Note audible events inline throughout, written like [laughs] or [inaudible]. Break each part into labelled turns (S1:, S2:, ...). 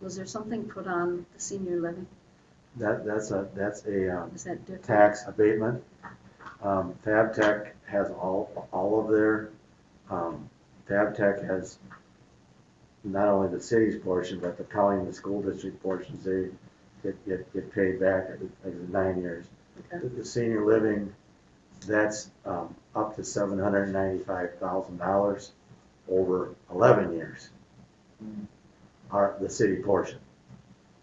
S1: was there something put on the senior living?
S2: That, that's a, that's a, um,
S1: Is that different?
S2: tax abatement. Um, Fab Tech has all, all of their, um, Fab Tech has not only the city's portion, but the county and the school district portions, they get, get, get paid back every, every nine years.
S1: Okay.
S2: The- The senior living, that's, um, up to seven hundred and ninety-five thousand dollars over eleven years. Are the city portion,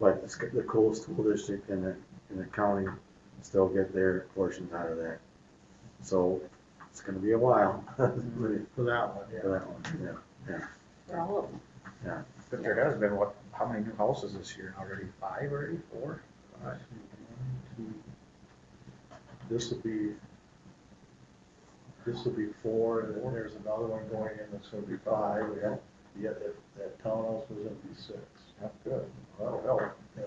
S2: but the, sc- the cool school district and the, and the county still get their portions out of that. So it's gonna be a while [laughs] for
S3: For that one, yeah.
S2: that one, yeah.
S1: For all of them.
S3: But there has been, what, how many new houses this year already? Five already, four? Five.
S4: This will be, this will be four, and then there's another one going in that's gonna be five, and that, yeah, that, that townhouse was gonna be six.
S3: That's good.
S4: That'll help, yeah.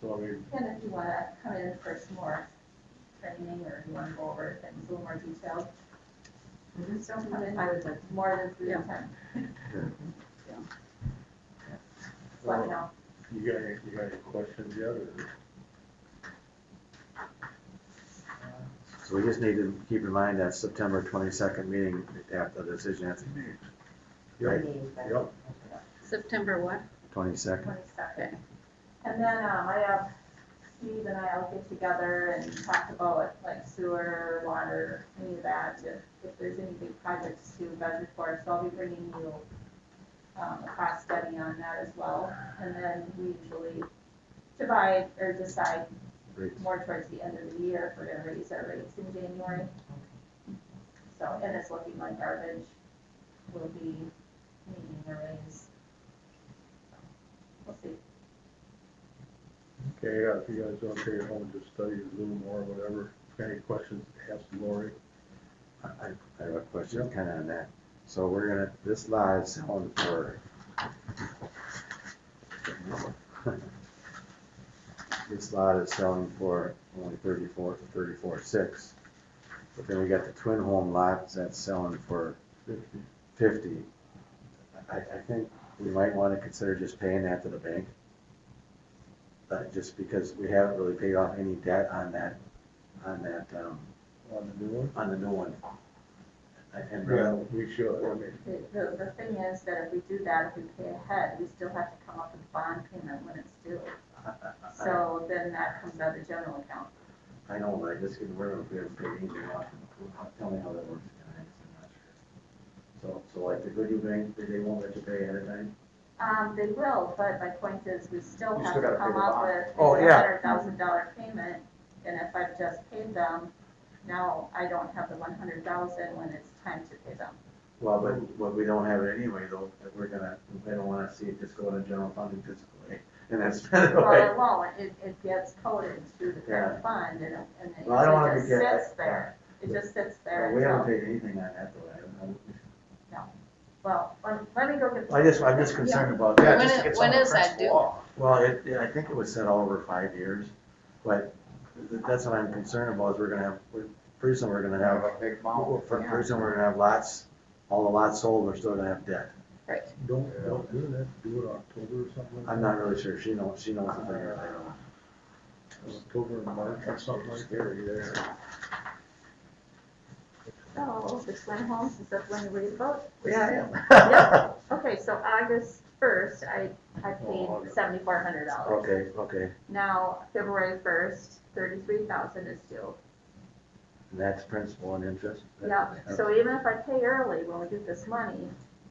S4: So I mean,
S5: And if you wanna come in for some more training or you wanna go over things a little more detailed, just don't come in more than three at a time.
S1: Yeah.
S5: Just Let me know.
S4: uh, you got any, you got any questions yet, or?
S2: So we just need to keep in mind that September twenty-second meeting, after the decision has to be made. Right,
S4: Yep.
S1: September what?
S2: twenty-second,
S1: Okay.
S5: Twenty-second. And then, um, I have Steve and I all get together and talk about like sewer, water, any of that, if, if there's any big projects to budget for, so I'll be bringing you um, a cost study on that as well, and then we usually divide or decide
S2: Rates.
S5: more towards the end of the year if we're gonna raise our rates in January. So, and it's looking like garbage will be needing a raise. We'll see.
S4: Okay, yeah, if you guys don't stay at home, just study Zoom or whatever, If you got any questions, ask Lori.
S2: I, I- I have a question kinda on that. So we're gonna, this lot is selling for. [laughs] This lot is selling for only thirty-four, thirty-four six. But then we got the twin home lots that's selling for
S4: Fifty.
S2: fifty. I, I think we might wanna consider just paying that to the bank. Uh, just because we haven't really paid off any debt on that, on that, um,
S4: on the new one?
S2: on the new one. And,
S4: Yeah,
S2: uh,
S4: we should, I mean,
S5: The, the, the thing is that if we do that, if we pay ahead, we still have to come up with bond payment when it's due. So then that comes out of the general account.
S2: I know, but I just get rid of it, but you know, tell me how that works, guys, I'm not sure. So, so like the Goodyear Bank, they they won't let you pay ahead of time?
S5: Um, they will, but my point is, we still
S3: You
S5: have
S3: still
S5: to
S3: gotta pay
S5: come
S3: the
S5: up
S3: bond.
S5: with
S3: Oh,
S5: a
S3: yeah.
S5: hundred thousand dollar payment. And if I've just paid them, now I don't have the one hundred thousand when it's time to pay them.
S2: Well, but, but we don't have it anyway, though, that we're gonna, we don't wanna see it just go to general fund and just, go away. [laughs] and that's kind of
S5: Well,
S2: like,
S5: it won't, it, it gets coded through the current fund and, it- and
S2: Well, I don't
S5: it
S2: wanna
S5: just
S2: get that.
S5: sits there. It just sits there
S2: we haven't
S5: until,
S2: paid anything on that, though, I don't know.
S5: well, let- let me go get.
S2: I just, I'm just concerned about
S3: Yeah,
S2: that.
S3: just to
S1: When
S3: get
S1: it-
S3: some
S1: when
S3: of the
S1: is that
S3: principal
S1: due?
S3: off.
S2: Well, it, it- I think it was set all over five years, but th- that's what I'm concerned about, is we're gonna have, we're- pretty soon we're gonna have,
S3: Have a big
S2: well,
S3: mouth.
S2: for- pretty soon we're gonna have lots, all the lots sold, we're still gonna have debt.
S1: Right.
S4: don't, don't do that, do it October or something like
S2: I'm
S4: that.
S2: not really sure, she knows, she knows the figure, I don't know.
S4: October and March or something like that,
S3: Scary there.
S5: So, the Swin Homes, is that when you read about?
S2: Yeah,
S5: yeah. Okay, so August first, I, I paid
S4: Oh, August.
S5: seventy-four hundred dollars.
S2: [laughs] Okay, okay,
S5: Now, February first, thirty-three thousand is due.
S2: and that's principal and interest?
S5: Yeah, so even if I pay early when we get this money,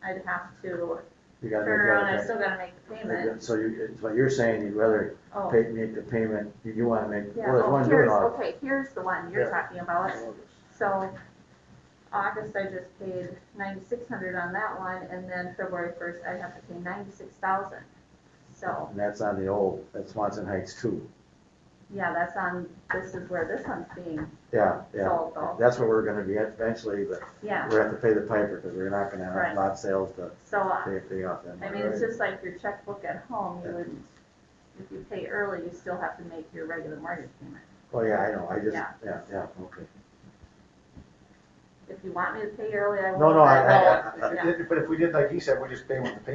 S5: I'd have to
S2: You
S5: turn
S2: gotta make
S5: around, I
S2: the
S5: still gotta make the
S2: other
S5: payment.
S2: payment. So you, so you're saying you'd rather
S5: Oh,
S2: pay, make the payment, you do wanna make,
S5: yeah,
S2: well, there's
S5: oh,
S2: one doing
S5: here's,
S2: all,
S5: okay, here's the one you're talking about. So, August, I just paid ninety-six hundred on that one, and then February first, I have to pay ninety-six thousand. So.
S2: and that's on the old, that's Swanson Heights too,
S5: Yeah, that's on, this is where this one's being
S2: yeah, yeah.
S5: sold though,
S2: That's where we're gonna be at eventually, but
S5: yeah,
S2: we're gonna have to pay the piper, because we're not gonna
S5: Right.
S2: have lot sales to
S5: so, uh,
S2: pay everything off then.
S5: I mean, it's just like your checkbook at home, you wouldn't, if you pay early, you still have to make your regular mortgage payment.
S2: Oh, yeah, I know, I just,
S5: Yeah.
S2: yeah, yeah, okay.
S5: If you want me to pay early, I will.
S2: No, no, I-
S5: but
S2: I-
S5: won't.
S3: But if we did, like he said, we just pay when the payment